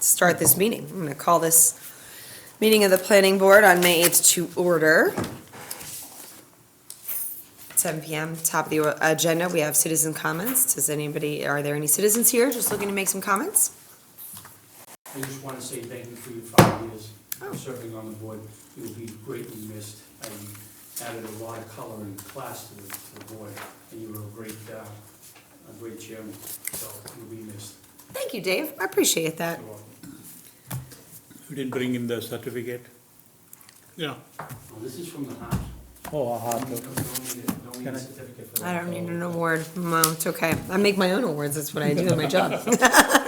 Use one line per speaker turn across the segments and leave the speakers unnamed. start this meeting. I'm going to call this meeting of the planning board on May 8th to order. 7 PM, top of the o- agenda, we have citizen comments. Does anybody, are there any citizens here just looking to make some comments?
I just want to say thank you for your five years
Oh.
of serving on the board. You'll be greatly missed. Uh, You added a lot of color and class to the, to the board, and you were a great, uh, a great chairman, so you'll be missed.
Thank you, Dave. I appreciate that.
You're welcome.
You didn't bring in the certificate? Yeah.
Well, This is from the heart.
Oh,
Don't need a- don't need
Can I-
a certificate for
I
that.
don't need an award. No, it's okay. I make my own awards. That's what I do in my job.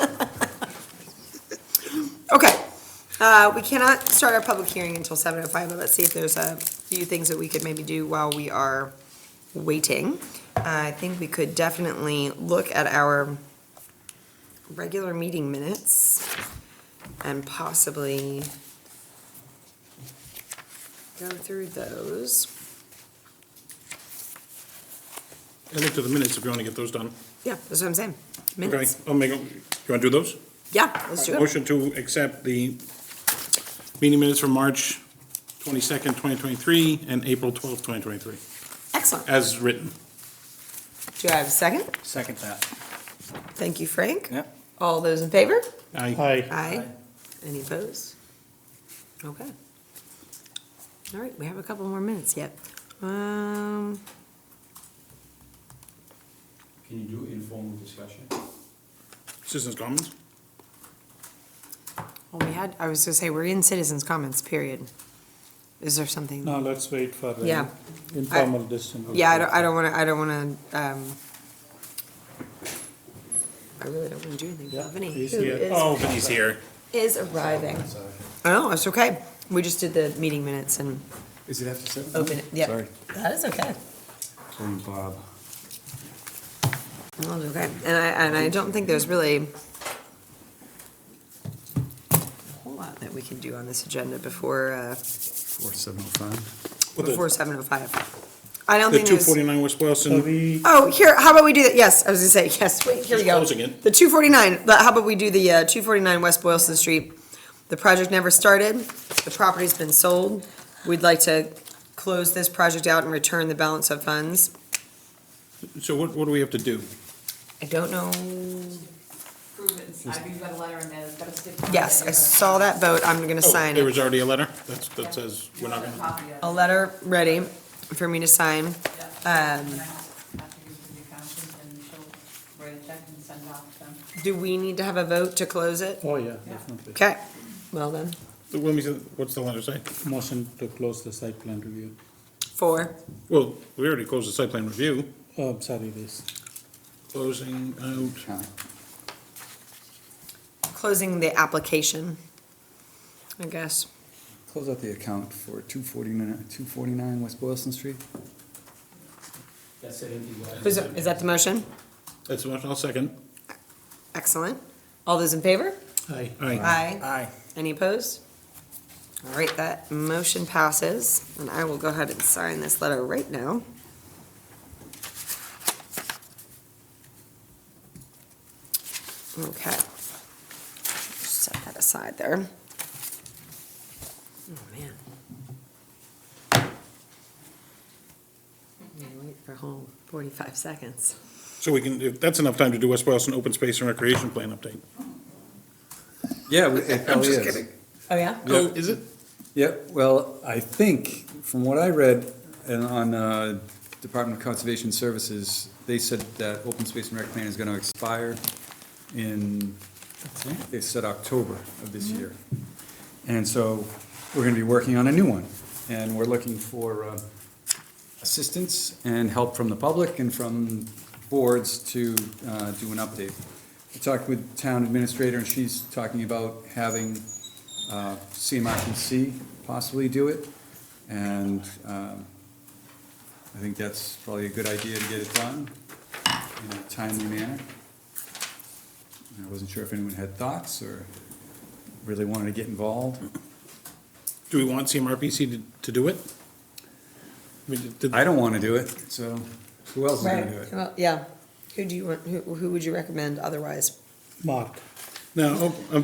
Okay. Uh, we cannot start our public hearing until seven oh five, but let's see if there's a few things that we could maybe do while we are waiting. Uh, I think we could definitely look at our regular meeting minutes and possibly go through those.
I looked at the minutes if you want to get those done.
Yeah, that's what I'm saying.
Okay,
Minutes.
I'll make, a- you want to do those?
Yeah, let's do it.
Motion to accept the meeting minutes from March 22nd, 2023, and April 12th, 2023,
Excellent.
as written.
Do I have a second?
Second that.
Thank you, Frank.
Yep.
All those in favor?
Aye.
Aye. Any opposed? Okay. All right, we have a couple more minutes yet. Um,
Can you do informal discussion?
Citizens' comments?
well, we had, I was gonna say, we're in citizens' comments, period. Is there something?
No, let's wait for the
Yeah.
informal decision.
Yeah, I don't, I don't wanna, I don't wanna, um, I really don't wanna do anything.
Yeah,
Balvenie,
he's
who
here.
is-
Oh, but he's here.
Is arriving. Oh, it's okay. We just did the meeting minutes and
Is it after seven?
open it, yeah.
Sorry.
That is okay.
From Bob.
Well, it's Okay, and I, and I don't think there's really a whole lot that we can do on this agenda before, uh,
Four seven oh five.
What
before
The
seven oh five. I don't
the
think there's,
249 West
So
Boylston,
we,
oh, here, how about we do that, yes, I was gonna say, yes, wait, here we
Just
go.
closing it.
The two forty-nine, but how about we do the, uh, two forty-nine West Boylston Street? The project never started, the property's been sold, we'd like to close this project out and return the balance of funds.
so what, what do we have to do?
I don't know,
improvements. I read the letter and then it's got a stick.
yes, I saw that vote, I'm gonna
Oh,
sign it.
There was already a letter? That's, that says we're not going to.
a letter ready for me to sign.
Um. And she'll write a check and send it off to them.
Do we need to have a vote to close it?
oh yeah, definitely.
Okay, well then,
Let me, see, what's the letter say?
Motion to close the site plan review.
four.
Well, we already closed the site plan review.
Oh, I'm sorry, this.
Closing out.
Closing the application, I guess.
Close out the account for two forty-nine, two forty-nine West Boylston Street.
That's it, empty letter.
Is is that the motion?
That's what I'll second.
Excellent. All those in favor?
Aye.
Aye.
Aye.
Aye.
Any opposed? All right, that motion passes, and I will go ahead and sign this letter right now. Okay. Set that aside there. Oh, man. I'm gonna wait for a whole forty-five seconds.
So we can, if that's enough time to do West Boylston Open Space and Recreation Plan update.
Yeah, we- it probably is.
Oh, yeah?
Oh, is it?
Yep, well, I think, from what I read, and on, uh, Department of Conservation Services, they said that open space and rec plan is gonna expire in, they said October of this year. And so, we're gonna be working on a new one, and we're looking for, uh, assistance and help from the public and from boards to, uh, do an update. I talked with town administrator, and she's talking about having, uh, CMRPC possibly do it, and um, I think that's probably a good idea to get it done in a timely manner. And I wasn't sure if anyone had thoughts or really wanted to get involved.
Do we want CMRPC to, to do it? I mean, did-
I don't want to do it, so who else is going to do
Right,
it?
well, yeah. Who do you, want- who, who would you recommend otherwise?
Mark.
Now, oh, I'm